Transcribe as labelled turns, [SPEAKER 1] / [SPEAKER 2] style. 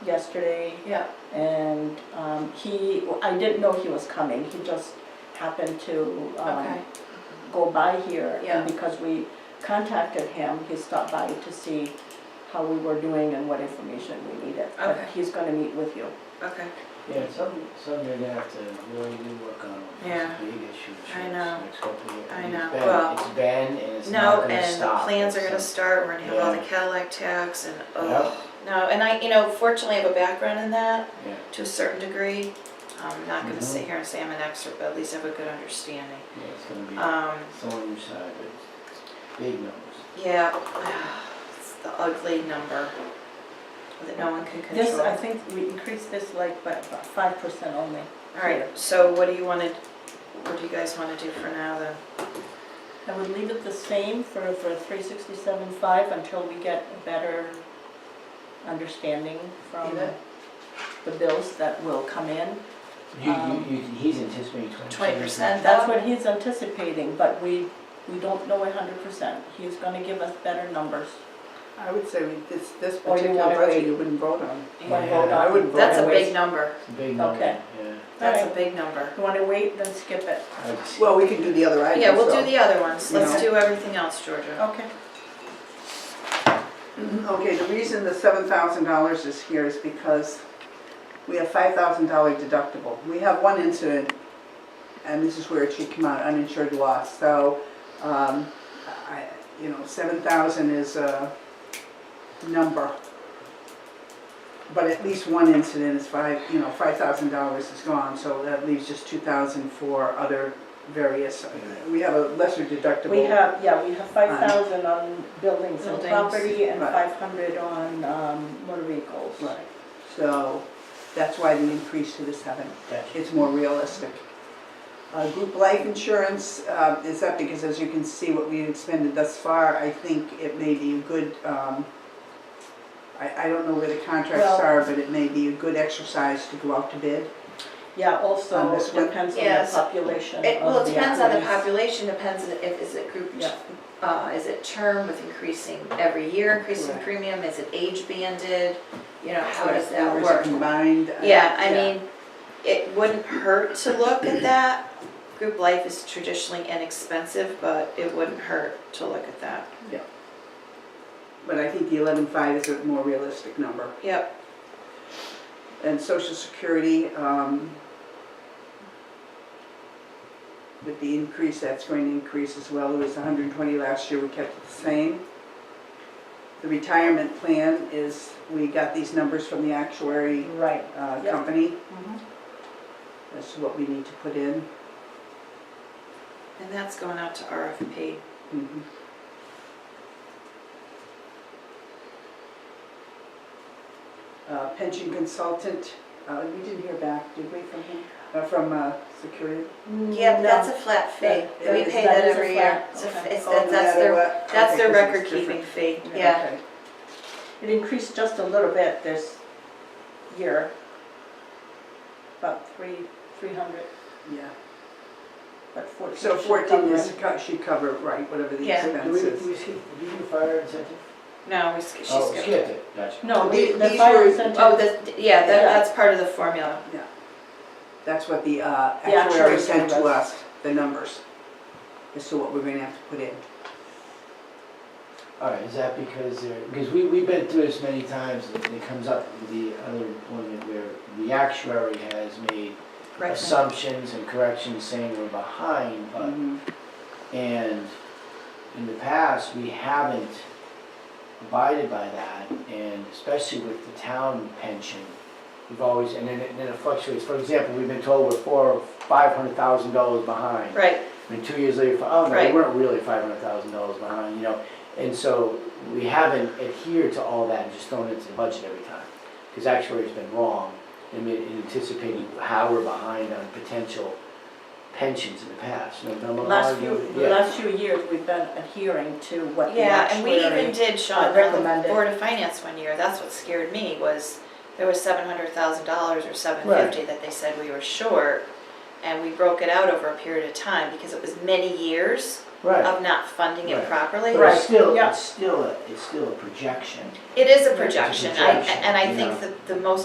[SPEAKER 1] yesterday,
[SPEAKER 2] Yeah,
[SPEAKER 1] and um, he, I didn't know he was coming, he just happened to um,
[SPEAKER 2] okay,
[SPEAKER 1] go by here. and
[SPEAKER 2] Yeah.
[SPEAKER 1] Because we contacted him, he stopped by to see how we were doing and what information we needed.
[SPEAKER 2] Okay.
[SPEAKER 1] But he's gonna meet with you.
[SPEAKER 2] okay.
[SPEAKER 3] Yeah, some, some you're gonna have to really do work on. It's a
[SPEAKER 2] Yeah.
[SPEAKER 3] Big issue.
[SPEAKER 2] I
[SPEAKER 3] It's-
[SPEAKER 2] know.
[SPEAKER 3] it's hopefully-
[SPEAKER 2] I
[SPEAKER 3] it's
[SPEAKER 2] know.
[SPEAKER 3] been-
[SPEAKER 2] Well,
[SPEAKER 3] It's been and it's
[SPEAKER 2] No,
[SPEAKER 3] not gonna
[SPEAKER 2] and
[SPEAKER 3] stop.
[SPEAKER 2] plans are gonna
[SPEAKER 3] So-
[SPEAKER 2] start, we're gonna have all the
[SPEAKER 3] Yeah.
[SPEAKER 2] Cadillac tax and,
[SPEAKER 3] Yeah.
[SPEAKER 2] oh, no, and I, you know, fortunately I have a background in that
[SPEAKER 3] Yeah,
[SPEAKER 2] to a certain degree. I'm not gonna
[SPEAKER 3] Mhm.
[SPEAKER 2] sit here and say I'm an expert, but at least I have a good understanding.
[SPEAKER 3] yeah, it's gonna be,
[SPEAKER 2] Um,
[SPEAKER 3] it's on your side, but it's- it's big numbers.
[SPEAKER 2] yeah, it's the ugly number that no one can
[SPEAKER 1] This, I
[SPEAKER 2] control.
[SPEAKER 1] think we increased this like by about five percent only.
[SPEAKER 2] Alright, so what do you wanna, what do you guys wanna do for now then?
[SPEAKER 1] I would leave it the same for, for three sixty-seven five until we get a better understanding from
[SPEAKER 2] Leave it.
[SPEAKER 1] the bills that will come in.
[SPEAKER 3] You,
[SPEAKER 1] Um,
[SPEAKER 3] you, you, he's anticipating twenty percent.
[SPEAKER 2] Twenty percent
[SPEAKER 1] That's what he's anticipating, but we, we don't know hundred percent. He's gonna give us better numbers.
[SPEAKER 4] I would say we- this, this
[SPEAKER 2] Oh,
[SPEAKER 1] Or you
[SPEAKER 4] particular
[SPEAKER 1] wanna
[SPEAKER 4] budget
[SPEAKER 1] wait.
[SPEAKER 4] you wouldn't vote on.
[SPEAKER 1] Wanna
[SPEAKER 3] Yeah.
[SPEAKER 1] vote on-
[SPEAKER 4] I wouldn't vote
[SPEAKER 2] That's a
[SPEAKER 4] on
[SPEAKER 2] big
[SPEAKER 4] it.
[SPEAKER 2] number,
[SPEAKER 3] It's a big number,
[SPEAKER 1] Okay.
[SPEAKER 3] yeah.
[SPEAKER 2] that's a
[SPEAKER 1] Alright.
[SPEAKER 2] big number.
[SPEAKER 1] You wanna wait, then skip it?
[SPEAKER 3] I would say-
[SPEAKER 4] Well, we can do the other items.
[SPEAKER 2] Yeah, we'll do
[SPEAKER 4] so-
[SPEAKER 2] the other ones,
[SPEAKER 4] you
[SPEAKER 2] let's
[SPEAKER 4] know.
[SPEAKER 2] do everything else, Georgia.
[SPEAKER 1] Okay.
[SPEAKER 4] Mm-hmm. Okay, the reason the seven thousand dollars is here is because we have five thousand dollar deductible. We have one incident, and this is where it should come out, uninsured loss, so, um, I, you know, seven thousand is a number. But at least one incident is five, you know, five thousand dollars is gone, so that leaves just two thousand for other various, we have a lesser deductible.
[SPEAKER 1] We have, yeah, we have five thousand on buildings and
[SPEAKER 2] Buildings.
[SPEAKER 1] property and
[SPEAKER 4] Right.
[SPEAKER 1] five hundred on um, motor vehicles.
[SPEAKER 4] Right, so that's why the increase to the seven,
[SPEAKER 3] Gotcha.
[SPEAKER 4] it's more realistic. Uh, group life insurance, uh, is up because as you can see what we've expended thus far, I think it may be a good, um, I, I don't know where the contracts
[SPEAKER 1] Well-
[SPEAKER 4] are, but it may be a good exercise to go out to bid.
[SPEAKER 1] Yeah, also
[SPEAKER 4] On this one?
[SPEAKER 1] depends on the
[SPEAKER 2] Yes.
[SPEAKER 1] population of the.
[SPEAKER 2] It, well, it depends on the
[SPEAKER 1] employees.
[SPEAKER 2] population, depends on if, is it group,
[SPEAKER 1] Yeah.
[SPEAKER 2] uh, is it term with increasing every year, increasing
[SPEAKER 4] Correct.
[SPEAKER 2] premium, is it age banded? You know, how does that
[SPEAKER 4] Hours
[SPEAKER 2] work?
[SPEAKER 4] Combined. uh,
[SPEAKER 2] Yeah, I mean, it wouldn't hurt to look at that. Group life is traditionally inexpensive, but it wouldn't hurt to look at that.
[SPEAKER 4] But I think the eleven-five is a more realistic number.
[SPEAKER 2] Yep,
[SPEAKER 4] And social security, um, with the increase, that's going to increase as well. It was hundred and twenty last year, we kept it the same. The retirement plan is, we got these numbers from the actuary,
[SPEAKER 1] Right.
[SPEAKER 4] uh,
[SPEAKER 1] Yep.
[SPEAKER 4] company.
[SPEAKER 1] Mhm.
[SPEAKER 4] That's what we need to put in.
[SPEAKER 2] and that's going out to RFP.
[SPEAKER 4] Mhm. Uh, pension consultant, uh, we didn't hear back, did we, from him, uh, from, uh, security?
[SPEAKER 2] Yeah, but
[SPEAKER 1] Mm, No.
[SPEAKER 2] that's a flat fee.
[SPEAKER 1] That-
[SPEAKER 2] We
[SPEAKER 4] that-
[SPEAKER 2] pay
[SPEAKER 1] that
[SPEAKER 2] that
[SPEAKER 1] is a
[SPEAKER 2] every
[SPEAKER 1] flat,
[SPEAKER 2] year. It's a f-
[SPEAKER 1] okay.
[SPEAKER 2] it's-
[SPEAKER 4] Oh, no
[SPEAKER 2] That's
[SPEAKER 4] matter
[SPEAKER 2] their,
[SPEAKER 4] what?
[SPEAKER 2] that's
[SPEAKER 4] Okay,
[SPEAKER 2] their
[SPEAKER 4] 'cause it's
[SPEAKER 2] record
[SPEAKER 4] different.
[SPEAKER 2] keeping fee, yeah.
[SPEAKER 4] Okay.
[SPEAKER 1] It increased just a little bit this year, about three, three hundred,
[SPEAKER 4] Yeah.
[SPEAKER 1] but fourteen.
[SPEAKER 4] So
[SPEAKER 1] should
[SPEAKER 4] 14
[SPEAKER 1] cover
[SPEAKER 4] is,
[SPEAKER 1] it.
[SPEAKER 4] co- should cover, right, whatever the
[SPEAKER 2] Yeah.
[SPEAKER 3] Do we, do
[SPEAKER 4] expenses.
[SPEAKER 3] we see, do you do fire incentive?
[SPEAKER 2] No, we sk- she
[SPEAKER 3] Oh,
[SPEAKER 2] skipped.
[SPEAKER 3] skipped it, gotcha.
[SPEAKER 1] No, the,
[SPEAKER 4] The-
[SPEAKER 1] the
[SPEAKER 4] these
[SPEAKER 1] fire
[SPEAKER 4] were-
[SPEAKER 1] incentive.
[SPEAKER 2] Oh, the, yeah, that,
[SPEAKER 1] Yeah.
[SPEAKER 2] that's part of the formula.
[SPEAKER 4] That's what the uh,
[SPEAKER 1] The
[SPEAKER 4] actuary
[SPEAKER 1] actuary
[SPEAKER 4] sent to
[SPEAKER 1] told us.
[SPEAKER 4] us, the numbers, as to what we're gonna have to put in.
[SPEAKER 3] All right, is that because they're, because we, we've been through this many times, and it comes up with the other employment where the actuary has made
[SPEAKER 2] Right.
[SPEAKER 3] assumptions and corrections saying we're behind, but,
[SPEAKER 4] Mm-hmm.
[SPEAKER 3] and in the past, we haven't abided by that, and especially with the town pension, we've always, and then it, then it fluctuates. For example, we've been told we're four, or five hundred thousand dollars behind.
[SPEAKER 2] Right,
[SPEAKER 3] And two years later, oh no, we
[SPEAKER 2] Right.
[SPEAKER 3] weren't really five hundred thousand dollars behind, you know. And so we haven't adhered to all that and just thrown it into the budget every time. Because actuary's been wrong in in anticipating how we're behind on potential pensions in the past. You know, Belmont
[SPEAKER 1] Last
[SPEAKER 3] Law, you
[SPEAKER 1] few,
[SPEAKER 3] know,
[SPEAKER 1] the
[SPEAKER 3] yeah.
[SPEAKER 1] last few years, we've been adhering to what the
[SPEAKER 2] yeah, and we even
[SPEAKER 1] actuary.
[SPEAKER 2] did, Sean, on the
[SPEAKER 1] recommended.
[SPEAKER 2] Board of Finance one year, that's what scared me, was there was seven hundred thousand dollars or seven fifty
[SPEAKER 3] Right.
[SPEAKER 2] that they said we were short, and we broke it out over a period of time, because it was many years,
[SPEAKER 3] Right.
[SPEAKER 2] of not funding it
[SPEAKER 3] Right.
[SPEAKER 2] properly.
[SPEAKER 3] But it's still,
[SPEAKER 1] yeah.
[SPEAKER 3] it's still, a- it's still a projection.
[SPEAKER 2] It is a projection, I,
[SPEAKER 3] projection,
[SPEAKER 2] and I
[SPEAKER 3] yeah.
[SPEAKER 2] think that the most